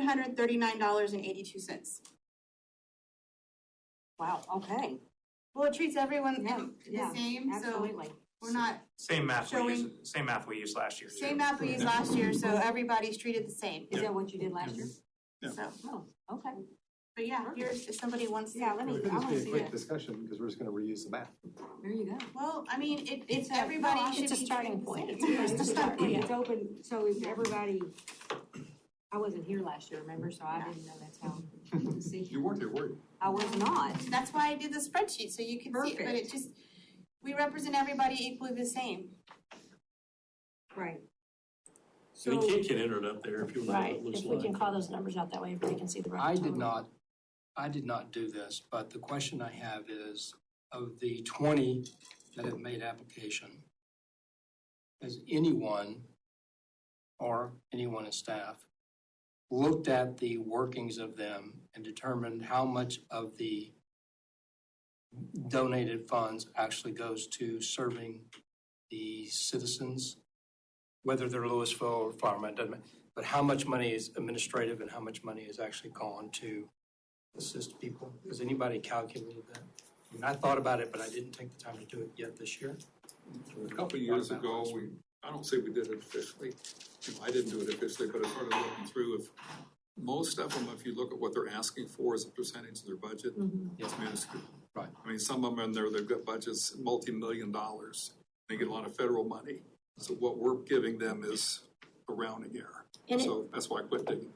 hundred thirty-nine dollars and eighty-two cents. Wow, okay. Well, it treats everyone Yeah, the yeah, same, so Absolutely. we're not, Same math we Showing- used, same math we used last year. too. same map we used last year, so everybody's treated the same, Is that what you did last year? Yeah. so. Oh, okay. But yeah, here's, if somebody wants to. Yeah, let me, It I could wanna just be see a quick that. discussion, because we're just gonna reuse the map. There you go. Well, I mean, it, it's, It's a- everybody no, I- should be. it's a treated starting the point. same. It's a first It's a step. start point. It's open, so is everybody, I wasn't here last year, remember, so I didn't know that's how. to see. You weren't there, were you? I was not. That's why I did the spreadsheet, so you can see, it, but it Perfect. just, we represent everybody equally the same. Right. And So, the kid can enter it up there if you want to know what Right, it looks if we like. uh, can call those numbers out that way, everybody can see the. I round did total. not, I did not do this, but the question I have is, of the twenty that have made application, has anyone, or anyone in staff, looked at the workings of them and determined how much of the donated funds actually goes to serving the citizens? Whether they're Louisville or Farmington, doesn't matter but how much money is administrative and how much money is actually gone to assist people? Has anybody calculated that? I mean, I thought about it, but I didn't take the time to do it yet this year. A couple of years ago, we, I don't say we did it officially, you know, I didn't do it officially, but I started looking through if, most of them, if you look at what they're asking for as a percentage of their budget, it's minuscule. Right. I mean, some of them in there, they've got budgets multi-million dollars, they get a lot of federal money, so what we're giving them is a rounding error. And it- So that's why I quit digging.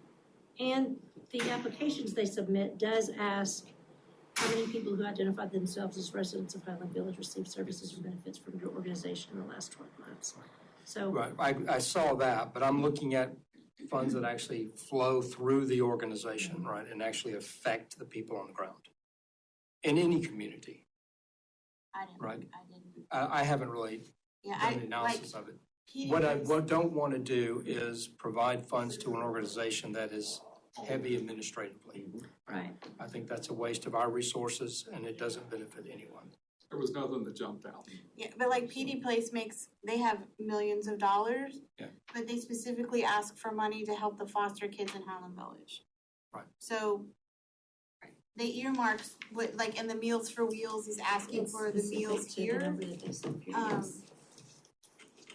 And the applications they submit does ask how many people who identified themselves as residents of Highland Village received services or benefits from your organization in the last twelve months. So, Right, I, I saw that, but I'm looking at funds that actually flow through the organization, right, and actually affect the people on the ground in any community. I didn't, Right. I didn't, I, I haven't really yeah, done the I, like, analysis of it. he What I, didn't- what I don't want to do is provide funds to an organization that is heavy administratively. right, I think that's a waste of our resources and it doesn't benefit anyone. There was nothing that jumped out. Yeah, but like PD Place makes, they have millions of dollars. Yeah. But they specifically ask for money to help the foster kids in Highland Village. Right. So they earmarks, what, like, and the Meals for Wheels is asking it's for the specific meals to the here. number that they send here, Um, yes.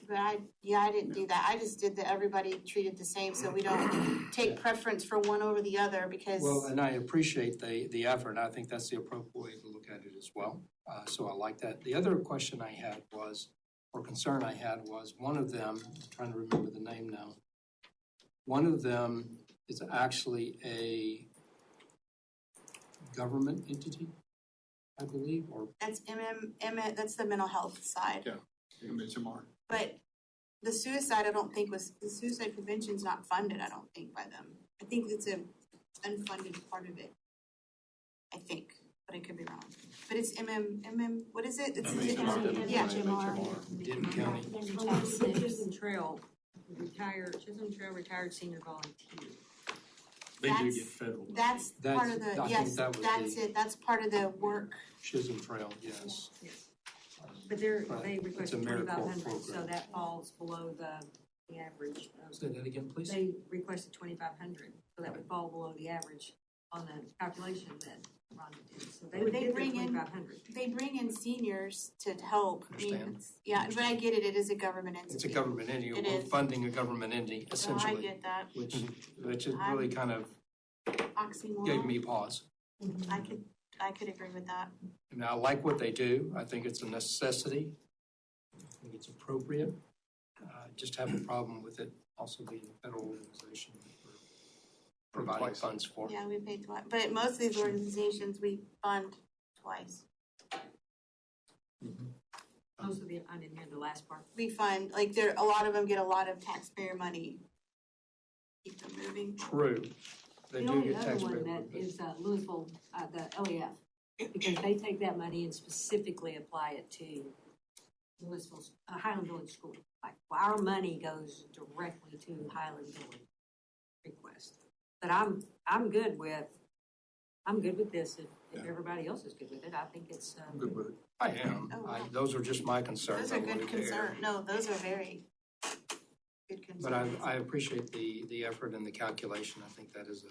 But I, yeah, I didn't do that. I just did that everybody treated the same, so we don't take preference for one over the other because. Well, and I appreciate the, the effort, and I think that's the appropriate way to look at it as well. Uh, so I like that. The other question I had was, or concern I had was, one of them, I'm trying to remember the name now. One of them is actually a government entity, I believe, or That's MM, M- that's the mental health side. I mean, Jamar, But the suicide, I don't think was, the suicide prevention's not funded, I don't think, by them. I think it's a unfunded part of it. I think, but I could be wrong. But it's MM, MM, what is it? It's- MHMR. Yeah, Denton County. um, There's your Along top with the six. Chisholm Trail, retired, Chisholm Trail retired senior volunteer. They do That's- get federal. money. that's part of That's- the, I think yes, that was that's the- it, that's part of the work. Chisholm Trail, yes. But they're, Right. they It's a requested merit twenty-five hundred, so program. that falls below the, the average. of- Say that again, please. They requested twenty-five hundred, so that would fall below the average on the calculation that Rhonda did. So they would They get their bring in- twenty-five hundred. They bring in seniors to help. I mean, Understand. it's- Yeah, but I get it, it is a government entity. It's a government entity, It we're is. funding a government entity So I essentially, get that which, which is really kind of gave oxymoron. me pause. I could, I could agree with that. And I like what they do. I think it's a necessity. I think it's appropriate. Uh, Just have a problem with it also being a federal organization that we're providing Twice. funds for. Yeah, we pay twice, but most of these organizations, we fund twice. Most of the, I didn't hear the last part. We fund, like, there, a lot of them get a lot of taxpayer money. Keep them moving. True. They The do only get other one taxpayer. that benefits. is uh, Louisville, uh, the LEF, because they take that money and specifically apply it to Louisville's, uh, Highland Village School. Like, well, our money goes directly to Highland Village request. But I'm, I'm good with, I'm good with this if, if Yeah. everybody else is good with it. I think it's, I'm um, good with it. I am. Oh, I- wow. Those are just my concerns. Those are I wanted good to air. concern, no, those are very good concerns. But I, I appreciate the, the effort and the calculation. I think that is a